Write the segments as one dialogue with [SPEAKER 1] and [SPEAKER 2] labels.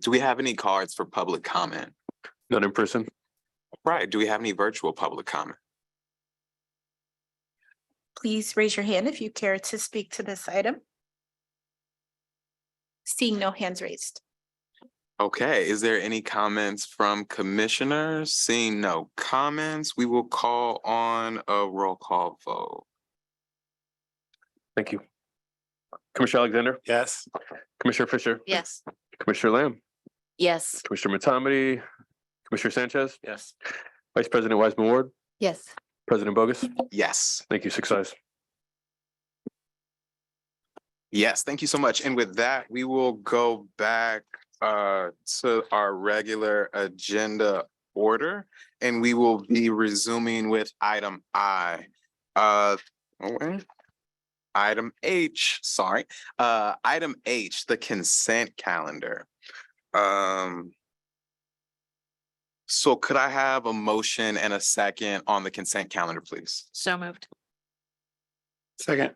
[SPEAKER 1] Do we have any cards for public comment?
[SPEAKER 2] Not in person?
[SPEAKER 1] Right, do we have any virtual public comment?
[SPEAKER 3] Please raise your hand if you care to speak to this item. Seeing no hands raised.
[SPEAKER 1] Okay, is there any comments from commissioners? Seeing no comments, we will call on a roll call vote.
[SPEAKER 2] Thank you. Commissioner Alexander,
[SPEAKER 4] Yes.
[SPEAKER 2] Commissioner Fisher,
[SPEAKER 5] Yes.
[SPEAKER 2] Commissioner Lamb,
[SPEAKER 5] Yes.
[SPEAKER 2] Commissioner Matomedy, Commissioner Sanchez,
[SPEAKER 4] Yes.
[SPEAKER 2] Vice President Wiseman Ward,
[SPEAKER 5] Yes.
[SPEAKER 2] President Bogus.
[SPEAKER 1] Yes,
[SPEAKER 2] Thank you, six eyes.
[SPEAKER 1] yes, thank you so much. And with that, we will go back uh to our regular agenda order. And we will be resuming with item I. Uh, oh, wait. Item H, sorry, uh, item H, the consent calendar. Um. So could I have a motion and a second on the consent calendar, please?
[SPEAKER 5] So moved.
[SPEAKER 4] Second.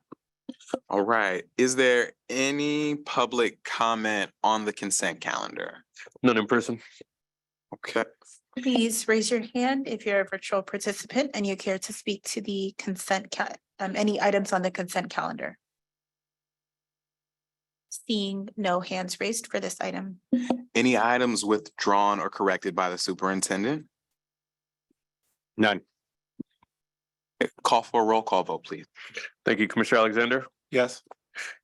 [SPEAKER 1] All right, is there any public comment on the consent calendar?
[SPEAKER 2] None in person?
[SPEAKER 1] Okay,
[SPEAKER 3] Please raise your hand if you're a virtual participant and you care to speak to the consent ca- um, any items on the consent calendar. Seeing no hands raised for this item.
[SPEAKER 1] any items withdrawn or corrected by the superintendent?
[SPEAKER 4] None.
[SPEAKER 1] Call for a roll call vote, please.
[SPEAKER 2] Thank you, Commissioner Alexander,
[SPEAKER 4] Yes.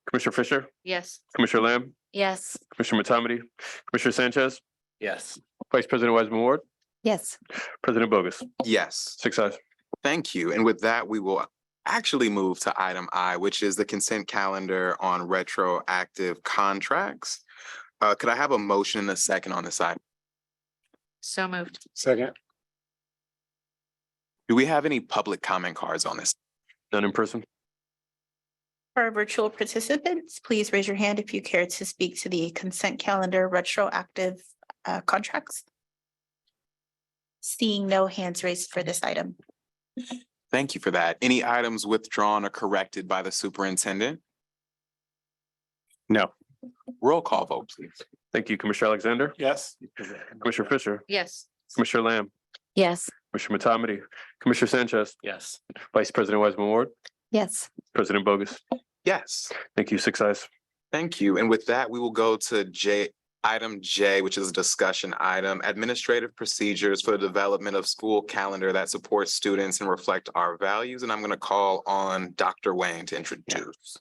[SPEAKER 2] Commissioner Fisher,
[SPEAKER 5] Yes.
[SPEAKER 2] Commissioner Lamb,
[SPEAKER 5] Yes.
[SPEAKER 2] Commissioner Matomedy, Commissioner Sanchez,
[SPEAKER 4] Yes.
[SPEAKER 2] Vice President Wiseman Ward,
[SPEAKER 5] Yes.
[SPEAKER 2] President Bogus,
[SPEAKER 1] Yes.
[SPEAKER 2] six eyes.
[SPEAKER 1] Thank you. And with that, we will actually move to item I, which is the consent calendar on retroactive contracts. Uh, could I have a motion and a second on this item?
[SPEAKER 5] So moved.
[SPEAKER 4] Second.
[SPEAKER 1] Do we have any public comment cards on this?
[SPEAKER 2] None in person?
[SPEAKER 3] For our virtual participants, please raise your hand if you care to speak to the consent calendar retroactive uh, contracts. Seeing no hands raised for this item.
[SPEAKER 1] Thank you for that. Any items withdrawn or corrected by the superintendent?
[SPEAKER 4] No.
[SPEAKER 1] Roll call vote, please.
[SPEAKER 2] Thank you, Commissioner Alexander,
[SPEAKER 4] Yes.
[SPEAKER 2] Commissioner Fisher,
[SPEAKER 5] Yes.
[SPEAKER 2] Commissioner Lamb,
[SPEAKER 5] Yes.
[SPEAKER 2] Commissioner Matomedy, Commissioner Sanchez,
[SPEAKER 4] Yes.
[SPEAKER 2] Vice President Wiseman Ward,
[SPEAKER 5] Yes.
[SPEAKER 2] President Bogus.
[SPEAKER 1] Yes.
[SPEAKER 2] Thank you, six eyes.
[SPEAKER 1] Thank you. And with that, we will go to J, item J, which is a discussion item, administrative procedures for the development of school calendar that supports students and reflect our values. And I'm going to call on Dr. Wayne to introduce.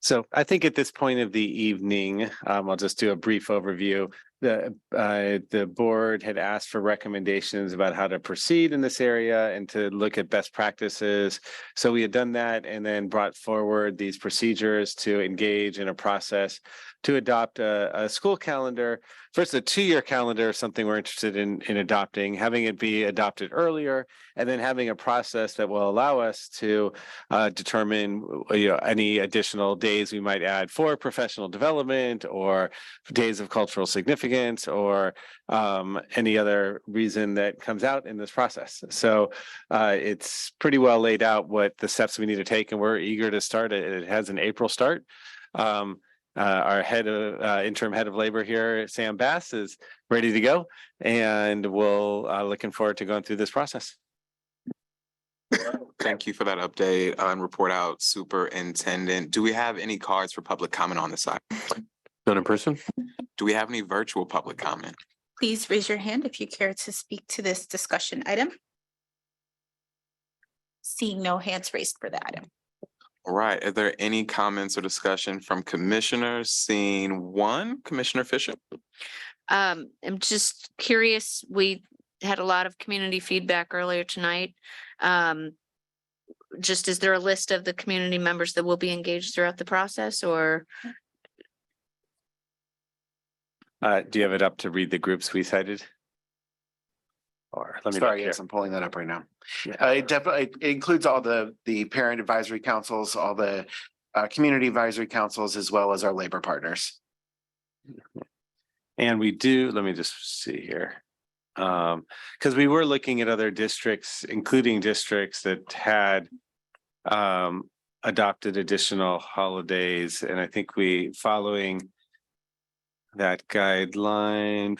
[SPEAKER 6] So I think at this point of the evening, um, I'll just do a brief overview. The, uh, the board had asked for recommendations about how to proceed in this area and to look at best practices. So we had done that and then brought forward these procedures to engage in a process to adopt a, a school calendar. First, a two-year calendar, is something we're interested in, in adopting, having it be adopted earlier, and then having a process that will allow us to uh, determine, uh, you know, any additional days we might add for professional development or days of cultural significance or um, any other reason that comes out in this process. So uh, it's pretty well laid out what the steps we need to take, and we're eager to start it. It has an April start. Um, uh, our head of uh, interim head of labor here, Sam Bass, is ready to go, and we'll uh, looking forward to going through this process.
[SPEAKER 1] Thank you for that update uh, and report out superintendent. Do we have any cards for public comment on this item?
[SPEAKER 2] None in person?
[SPEAKER 1] Do we have any virtual public comment?
[SPEAKER 3] Please raise your hand if you care to speak to this discussion item. Seeing no hands raised for the item.
[SPEAKER 1] All right, are there any comments or discussion from commissioners? Seeing one, Commissioner Fisher?
[SPEAKER 5] Um, I'm just curious, we had a lot of community feedback earlier tonight. Um, just is there a list of the community members that will be engaged throughout the process or?
[SPEAKER 6] Uh, do you have it up to read the groups we cited? Or let me. look
[SPEAKER 7] Sorry,
[SPEAKER 6] here.
[SPEAKER 7] yes, I'm pulling that up right now.
[SPEAKER 6] Yeah.
[SPEAKER 7] Uh, It definitely it includes all the, the parent advisory councils, all the uh, community advisory councils, as well as our labor partners.
[SPEAKER 6] And we do, let me just see here. Um, because we were looking at other districts, including districts that had um, adopted additional holidays, and I think we, following that guideline